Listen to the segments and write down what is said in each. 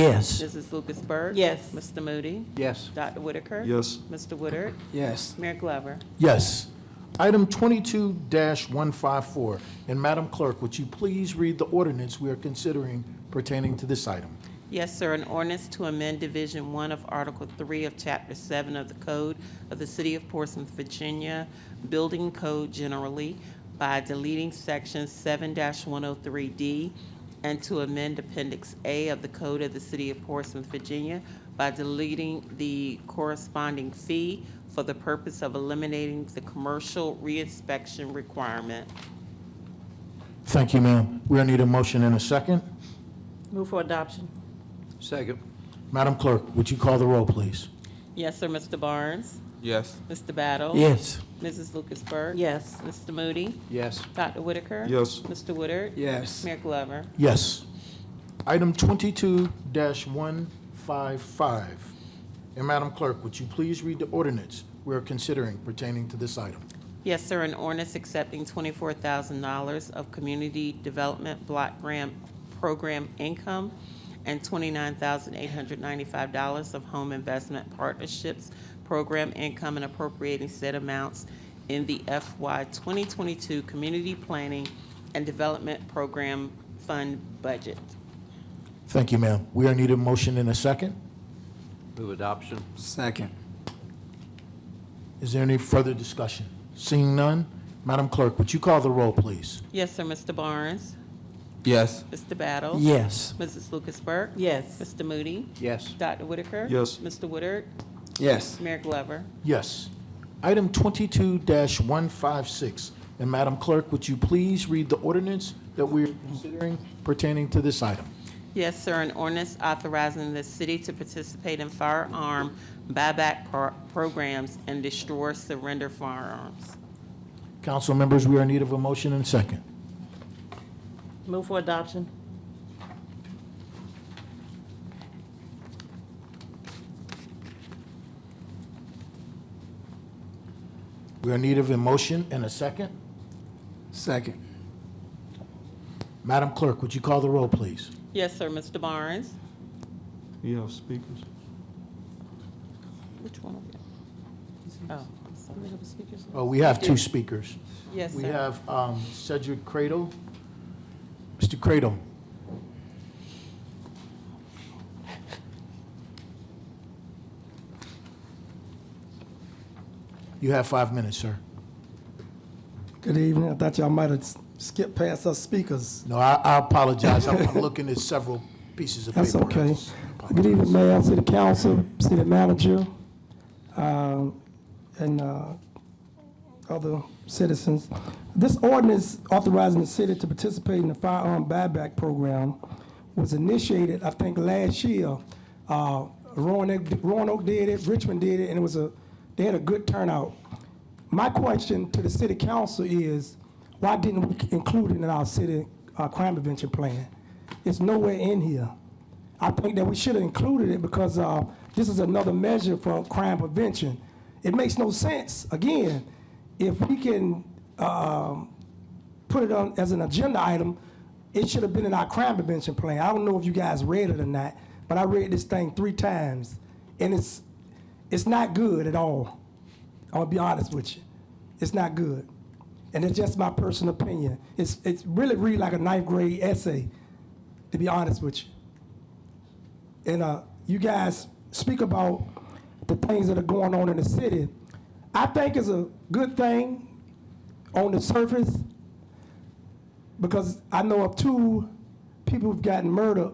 Yes. Mrs. Lucas Burke? Yes. Mr. Moody? Yes. Dr. Whitaker? Yes. Mr. Woodard? Yes. Mayor Glover? Yes. Item twenty-two one five four. And Madam Clerk, would you please read the ordinance we are considering pertaining to this item? Yes, sir. An ordinance to amend Division One of Article Three of Chapter Seven of the Code of the City of Portsmouth, Virginia, Building Code generally by deleting Section seven one oh three D and to amend Appendix A of the Code of the City of Portsmouth, Virginia by deleting the corresponding fee for the purpose of eliminating the commercial reinspection requirement. Thank you, ma'am. We'll need a motion in a second. Move for adoption. Second. Madam Clerk, would you call the roll, please? Yes, sir. Mr. Barnes? Yes. Mr. Battle? Yes. Mrs. Lucas Burke? Yes. Mr. Moody? Yes. Dr. Whitaker? Yes. Mr. Woodard? Yes. Mayor Glover? Yes. Item twenty-two one five five. And Madam Clerk, would you please read the ordinance we are considering pertaining to this item? Yes, sir, an ordinance accepting twenty-four thousand dollars of Community Development Block Grant Program income and twenty-nine thousand eight hundred ninety-five dollars of Home Investment Partnerships Program income and appropriating said amounts in the FY twenty-twenty-two Community Planning and Development Program Fund budget. Thank you, ma'am. We are need a motion in a second. Move adoption. Second. Is there any further discussion? Seeing none, Madam Clerk, would you call the roll, please? Yes, sir, Mr. Barnes? Yes. Mr. Battle? Yes. Mrs. Lucas Burke? Yes. Mr. Moody? Yes. Dr. Whitaker? Yes. Mr. Woodard? Yes. Mayor Glover? Yes. Item twenty-two one five six. And Madam Clerk, would you please read the ordinance that we are considering pertaining to this item? Yes, sir, an ordinance authorizing the city to participate in firearm buyback pro- programs and destroy surrender firearms. Council members, we are in need of a motion and second. Move for adoption. We are in need of a motion and a second. Second. Madam Clerk, would you call the roll, please? Yes, sir, Mr. Barnes? You have speakers? Which one? Oh, I'm sorry. Oh, we have two speakers. Yes, We sir. have um, Cedric Cradle. Mr. Cradle. You have five minutes, sir. Good evening. I thought y'all might have skipped past us speakers. No, I I apologize. I'm I'm looking at several pieces of paper. That's okay. Good evening, Mayor, City Council, City Manager, um, and uh, other citizens. This ordinance authorizing the city to participate in the firearm buyback program was initiated, I think, last year. Uh, Roanoke Roanoke did it, Richmond did it, and it was a, they had a good turnout. My question to the city council is, why didn't we include it in our city uh, crime prevention plan? It's nowhere in here. I think that we should have included it because uh, this is another measure for crime prevention. It makes no sense, again, if we can um, put it on as an agenda item, it should have been in our crime prevention plan. I don't know if you guys read it or not, but I read this thing three times, and it's, it's not good at all. I'm gonna be honest with you. It's not good. And it's just my personal opinion. It's, it's really read like a ninth grade essay, to be honest with you. And uh, you guys speak about the things that are going on in the city. I think it's a good thing on the surface because I know of two people who've gotten murdered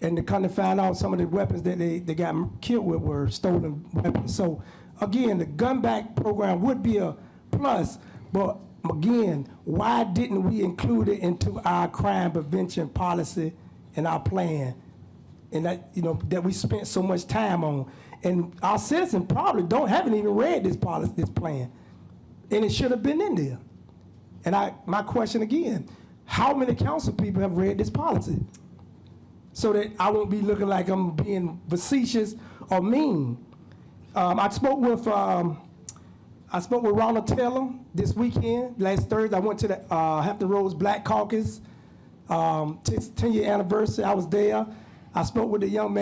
and to kind of find out some of the weapons that they, they got killed with were stolen weapons. So again, the gun back program would be a plus, but again, why didn't we include it into our crime prevention policy and our plan? And that, you know, that we spent so much time on. And our citizens probably don't, haven't even read this policy, this plan. And it should have been in there. And I, my question again, how many council people have read this policy? So that I won't be looking like I'm being facetious or mean. Um, I spoke with, um, I spoke with Ronald Taylor this weekend, last Thursday. I went to the, uh, Hampton Roads Black Caucus, um, 10 10-year anniversary. I was there. I spoke with the young man